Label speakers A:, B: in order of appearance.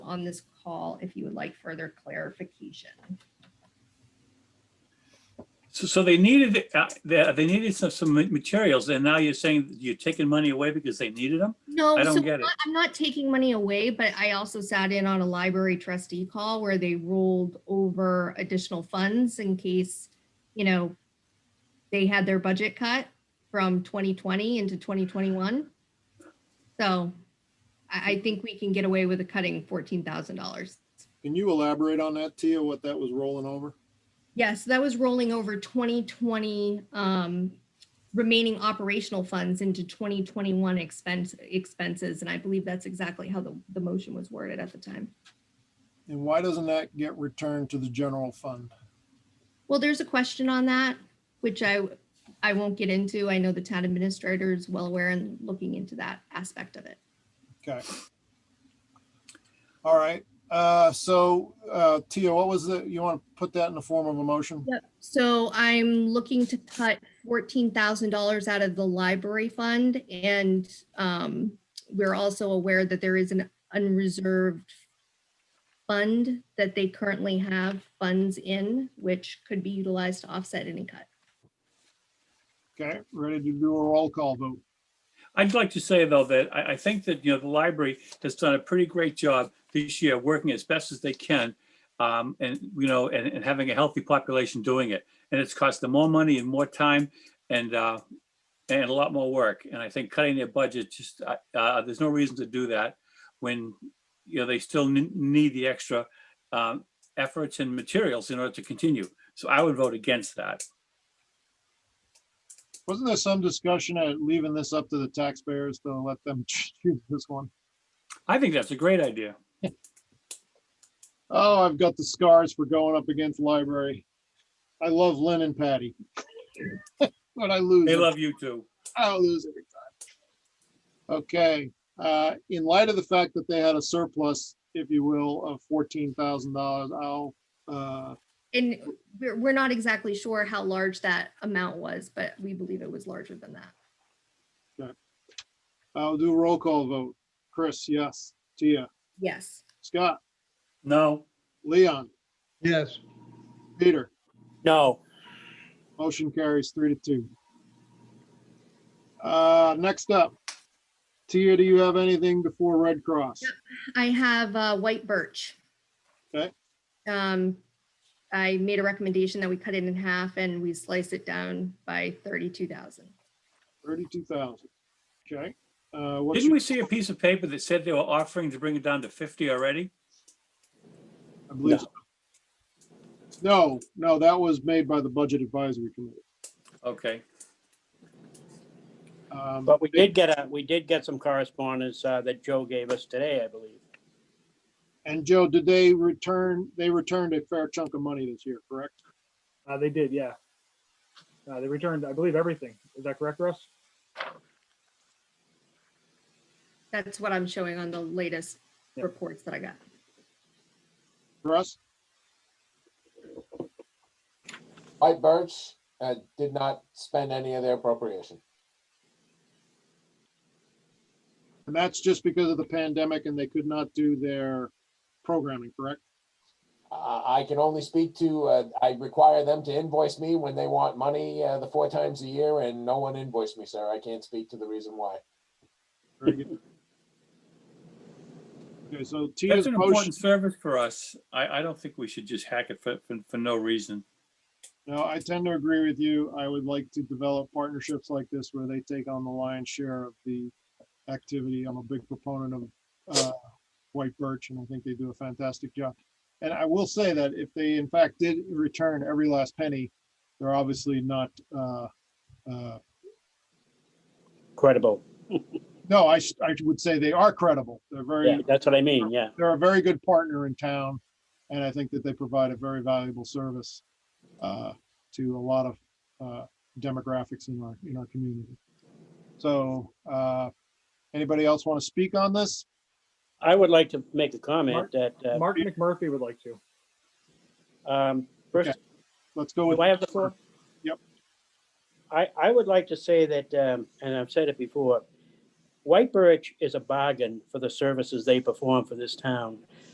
A: on this call if you would like further clarification.
B: So, so they needed, uh, they, they needed some, some materials and now you're saying you're taking money away because they needed them?
A: No,
B: I don't
A: so
B: get
A: I'm
B: it.
A: not- I'm not taking money away, but I also sat in on a library trustee call where they rolled over additional funds in case, you know, they had their budget cut from 2020 into 2021. So I, I think we can get away with a cutting $14,000.
C: Can you elaborate on that, Tia, what that was rolling over?
A: Yes, that was rolling over 2020 um, remaining operational funds into 2021 expense expenses. And I believe that's exactly how the, the motion was worded at the time.
C: And why doesn't that get returned to the general fund?
A: Well, there's a question on that, which I, I won't get into. I know the town administrator is well aware and looking into that aspect of it.
C: Okay. All right, uh, so, uh, Tia, what was the, you want to put that in the form of a motion?
A: So I'm looking to cut fourteen thousand dollars out of the library fund and um, we're also aware that there is an unreserved fund that they currently have funds in, which could be utilized to offset any cut.
C: Okay, ready to do a roll call vote?
B: I'd like to say though, that I, I think that, you know, the library has done a pretty great job this year, working as best as they can. Um, and, you know, and, and having a healthy population doing it. And it's cost them more money and more time and, uh, and a lot more work. And I think cutting their budget, just, uh, uh, there's no reason to do that when, you know, they still n- need the extra, um, efforts and materials in order to continue. So I would vote against that.
C: Wasn't there some discussion at leaving this up to the taxpayers to let them choose this one?
B: I think that's a great idea.
C: Oh, I've got the scars for going up against library. I love Lynn and Patty. But I lose.
B: They
C: every
B: love you too.
C: I lose every time. Okay, uh, in light of the fact that they had a surplus, if you will, of fourteen thousand dollars, I'll, uh,
A: And we're, we're not exactly sure how large that amount was, but we believe it was larger than that.
C: I'll do a roll call vote. Chris, yes. Tia,
A: Yes.
C: Scott,
B: No.
C: Leon,
D: Yes,
C: Peter,
B: No.
C: motion carries three to two. Uh, next up, Tia, do you have anything before Red Cross?
A: I have uh, white birch.
C: Okay.
A: Um, I made a recommendation that we cut it in half and we slice it down by thirty-two thousand.
C: Thirty-two thousand, okay? Uh, what's,
B: Didn't
C: your-
B: we see a piece of paper that said they were offering to bring it down to fifty already?
C: I believe. so. No, no, that was made by the Budget Advisory Committee.
B: Okay,
C: Um,
E: But we did get a, Uh, we did get some correspondence uh, that Joe gave us today, I believe.
C: And Joe, did they return, they returned a fair chunk of money this year, correct?
F: Uh, they did, yeah. Uh, they returned, I believe, everything. Is that correct, Russ?
A: That's what I'm showing on the latest
F: Yeah.
A: reports that I got.
C: Russ?
G: White Birch uh, did not spend any of their appropriation.
C: And that's just because of the pandemic and they could not do their programming, correct?
G: Uh, I can only speak to, uh, I require them to invoice me when they want money uh, the four times a year, and no one invoiced me, sir. I can't speak to the reason why.
C: Very good. Okay, so
B: that's
C: Tia's
B: an
C: motion,
B: important service for us. I, I don't think we should just hack it for, for, for no reason.
C: no, I tend to agree with you. I would like to develop partnerships like this where they take on the lion's share of the activity. I'm a big proponent of uh, White Birch, and I think they do a fantastic job. And I will say that if they in fact did return every last penny, they're obviously not, uh, uh,
E: Credible.
C: no, I, s- I would say they are credible. They're
E: Yeah,
C: very,
E: that's what I mean, yeah.
C: they're a very good partner in town. And I think that they provide a very valuable service uh, to a lot of uh, demographics in our, in our community. So uh, anybody else want to speak on this?
E: I would like to make a comment that, uh,
F: Mark McMurphy would like to.
E: um, first,
C: Let's go with,
E: do I have the floor?
C: Yep.
E: I, I would like to say that, um, and I've said it before, White Birch is a bargain for the services they perform for this town.